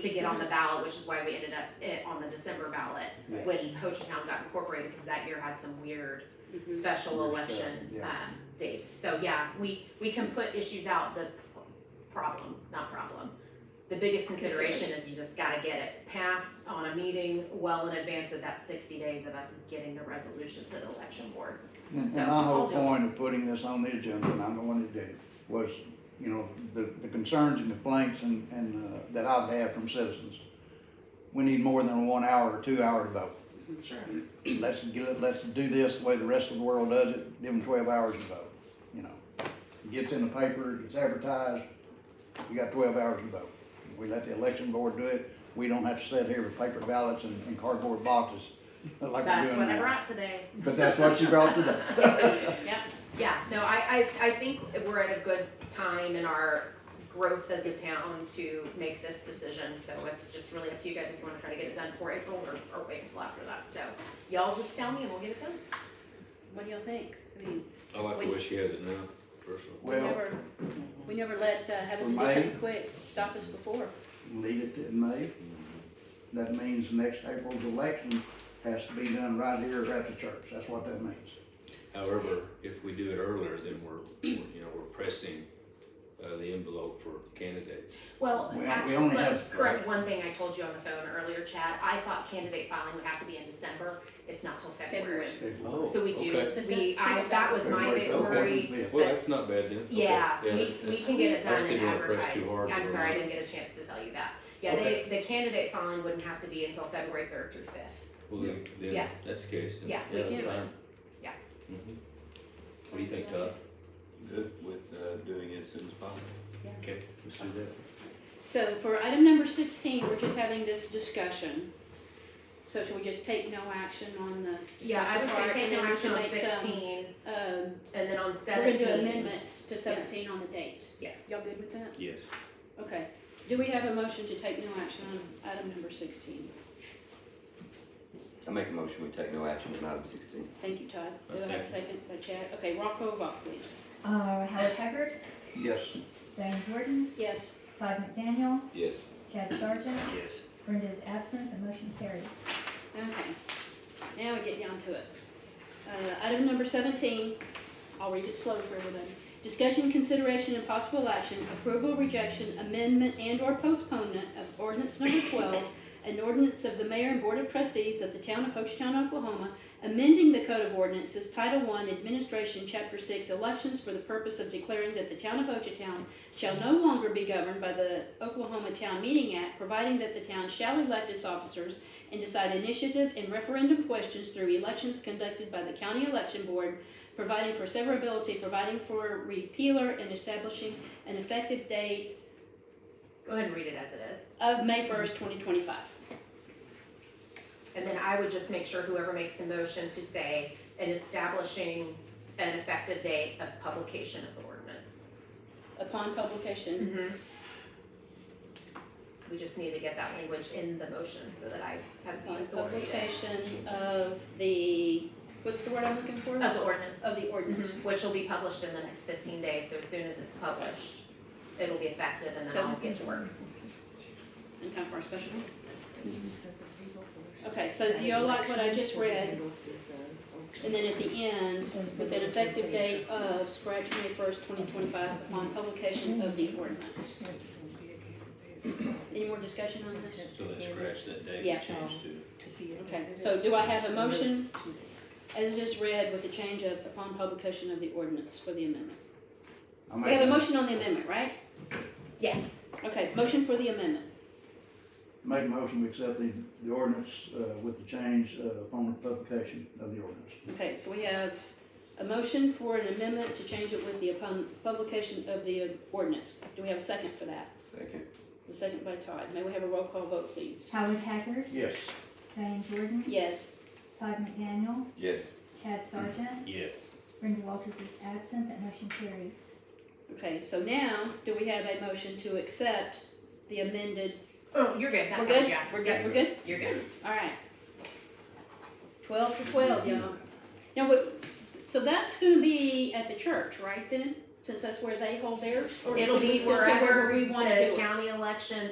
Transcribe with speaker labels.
Speaker 1: to get on the ballot, which is why we ended up it on the December ballot
Speaker 2: Yes.
Speaker 1: when Ho Chi Town got incorporated, because that year had some weird
Speaker 2: Mm-hmm.
Speaker 3: Mhm.
Speaker 1: special
Speaker 2: Weird stuff,
Speaker 1: election,
Speaker 2: yeah.
Speaker 1: um, dates. So, yeah, we, we can put issues out, the p- problem, not problem. The biggest consideration is you just gotta get it passed on a meeting well in advance of that sixty days of us getting the resolution to the election board.
Speaker 2: And
Speaker 1: So,
Speaker 2: and my whole
Speaker 1: I'll do it.
Speaker 2: point of putting this on the agenda, and I'm the one that did it, was, you know, the, the concerns and complaints and, and, uh, that I've had from citizens. We need more than one hour or two hour to vote.
Speaker 1: Sure.
Speaker 2: Mm-hmm. Let's get, it- let's do this the way the rest of the world does it, give them twelve hours to vote, you know. Gets in the paper, it's advertised, you got twelve hours to vote. We let the election board do it, we don't have to sit here with paper ballots and, and cardboard boxes like we're
Speaker 1: That's
Speaker 2: doing
Speaker 1: what I
Speaker 2: now.
Speaker 1: brought today.
Speaker 2: But that's what she brought today,
Speaker 1: Yeah, no, I, I, I think we're at a good time in our growth as a town to make this decision. So it's just really up to you guys if you wanna try to get it done for April or, or wait until after that. So y'all just tell me and we'll get it done.
Speaker 3: What do y'all think? I mean,
Speaker 4: I like the way she has it now, personally.
Speaker 3: we
Speaker 2: Well-
Speaker 3: never, we never let, uh, having to
Speaker 2: For
Speaker 3: do
Speaker 2: May.
Speaker 3: something quick stop us before.
Speaker 2: leave it in May. That means next April's election has to be done right here at the church. That's what that means.
Speaker 4: However, if we do it earlier, then we're, we're, you know, we're pressing, uh, the envelope for candidates.
Speaker 1: Well,
Speaker 2: We- we
Speaker 1: actually,
Speaker 2: only
Speaker 1: let me
Speaker 2: have-
Speaker 1: correct one thing I told you on the phone earlier, Chad. I thought candidate filing would have to be in December. It's not till February.
Speaker 3: February.
Speaker 1: So we do,
Speaker 4: Okay.
Speaker 1: we, I, that was my big worry.
Speaker 4: Well, that's not bad then. Okay.
Speaker 1: Yeah, we,
Speaker 4: that-
Speaker 1: we
Speaker 4: that's-
Speaker 1: can get it
Speaker 4: I
Speaker 1: done
Speaker 4: was
Speaker 1: and
Speaker 4: thinking we were pressed
Speaker 1: advertised.
Speaker 4: too hard.
Speaker 1: I'm
Speaker 4: We're
Speaker 1: sorry, I
Speaker 4: not.
Speaker 1: didn't get a chance to tell you that. Yeah, they, the candidate filing wouldn't have to be until February third through fifth.
Speaker 4: Well, then, then,
Speaker 1: Yeah.
Speaker 4: that's the case. then.
Speaker 1: Yeah,
Speaker 3: we
Speaker 4: that's
Speaker 3: can.
Speaker 4: fine.
Speaker 1: Yeah.
Speaker 4: Mhm. What do you think, Todd?
Speaker 5: Good with uh, doing it as soon as possible.
Speaker 4: Let's do that.
Speaker 3: So for item number sixteen, we're just having this discussion. So should we just take no action on the
Speaker 1: Yeah, I
Speaker 3: discussion
Speaker 1: would
Speaker 3: part?
Speaker 1: say take
Speaker 3: and
Speaker 1: no
Speaker 3: then we
Speaker 1: action
Speaker 3: should
Speaker 1: on
Speaker 3: make some,
Speaker 1: sixteen,
Speaker 3: Um,
Speaker 1: and then on
Speaker 3: we're gonna do an
Speaker 1: seventeen,
Speaker 3: amendment to seventeen on the date.
Speaker 1: yes.
Speaker 3: Y'all good with that?
Speaker 4: Yes.
Speaker 3: Okay. Do we have a motion to take no action on item number sixteen?
Speaker 5: I make a motion, we take no action on item sixteen.
Speaker 3: Thank you, Todd.
Speaker 4: A
Speaker 3: Do I have a second by Chad? Okay, roll call vote, please.
Speaker 6: Uh, Howard Haggard,
Speaker 2: Yes,
Speaker 6: Diane Jordan,
Speaker 3: Yes.
Speaker 6: Todd McDaniel,
Speaker 5: Yes.
Speaker 6: Chad Sargent,
Speaker 4: Yes.
Speaker 6: Brenda is absent, the motion carries.
Speaker 3: Okay, now we get down to it. Uh, item number seventeen, I'll read it slow for everybody. Discussion, consideration, and possible action, approval, rejection, amendment, and/or postponement of ordinance number twelve, an ordinance of the mayor and board of trustees of the town of Hochtown, Oklahoma, amending the code of ordinances, Title I, Administration, Chapter Six, Elections for the purpose of declaring that the town of Hochtown shall no longer be governed by the Oklahoma Town Meeting Act, providing that the town shall elect its officers and decide initiative and referendum questions through elections conducted by the county election board, providing for severability, providing for repealer, and establishing an effective date
Speaker 1: Go ahead and read it as it is.
Speaker 3: of May first, twenty twenty-five.
Speaker 1: And then I would just make sure whoever makes the motion to say, and establishing an effective date of publication of the ordinance.
Speaker 3: Upon publication,
Speaker 1: Mm-hmm. We just need to get that language in the motion so that I have the
Speaker 3: upon
Speaker 1: authority to-
Speaker 3: publication of the, what's the word I'm looking for?
Speaker 1: of the ordinance.
Speaker 3: Of the ordinance.
Speaker 1: Mhm, Which will be published in the next fifteen days, so as soon as it's published, it'll be effective and then
Speaker 3: So-
Speaker 1: I'll get to work. Mm-hmm.
Speaker 3: In time for our special. Okay, so do y'all like what I just read? And then at the end, with an effective date of scratch May first, twenty twenty-five upon publication of the ordinance. Any more discussion on this?
Speaker 4: So let's scratch that date
Speaker 3: Yeah.
Speaker 4: and change to,
Speaker 3: Okay, so do I have a motion as just read with the change of upon publication of the ordinance for the amendment?
Speaker 2: I
Speaker 3: We have a
Speaker 2: make,
Speaker 3: motion on the amendment, right?
Speaker 1: Yes,
Speaker 3: Okay, motion for the amendment.
Speaker 2: make a motion, we accept the, the ordinance, uh, with the change, uh, upon the publication of the ordinance.
Speaker 3: Okay, so we have a motion for an amendment to change it with the upon publication of the ordinance. Do we have a second for that?
Speaker 5: Second.
Speaker 3: A second by Todd. May we have a roll call vote, please?
Speaker 6: Howard Haggard,
Speaker 2: Yes,
Speaker 6: Diane Jordan,
Speaker 3: Yes.
Speaker 6: Todd McDaniel,
Speaker 5: Yes.
Speaker 6: Chad Sargent,
Speaker 4: yes.
Speaker 6: Brenda Walters is absent, that motion carries.
Speaker 3: Okay, so now, do we have a motion to accept the amended,
Speaker 1: oh, you're good, that
Speaker 3: we're
Speaker 1: one,
Speaker 3: good?
Speaker 1: yeah,
Speaker 3: We're good, we're good?
Speaker 1: you're good.
Speaker 3: All right. Twelve to twelve, y'all. Now, what, so that's gonna be at the church, right then? Since that's where they hold theirs? Or
Speaker 1: It'll
Speaker 3: can we
Speaker 1: be
Speaker 3: still say
Speaker 1: wherever
Speaker 3: we wanna do
Speaker 1: the
Speaker 3: it?
Speaker 1: county election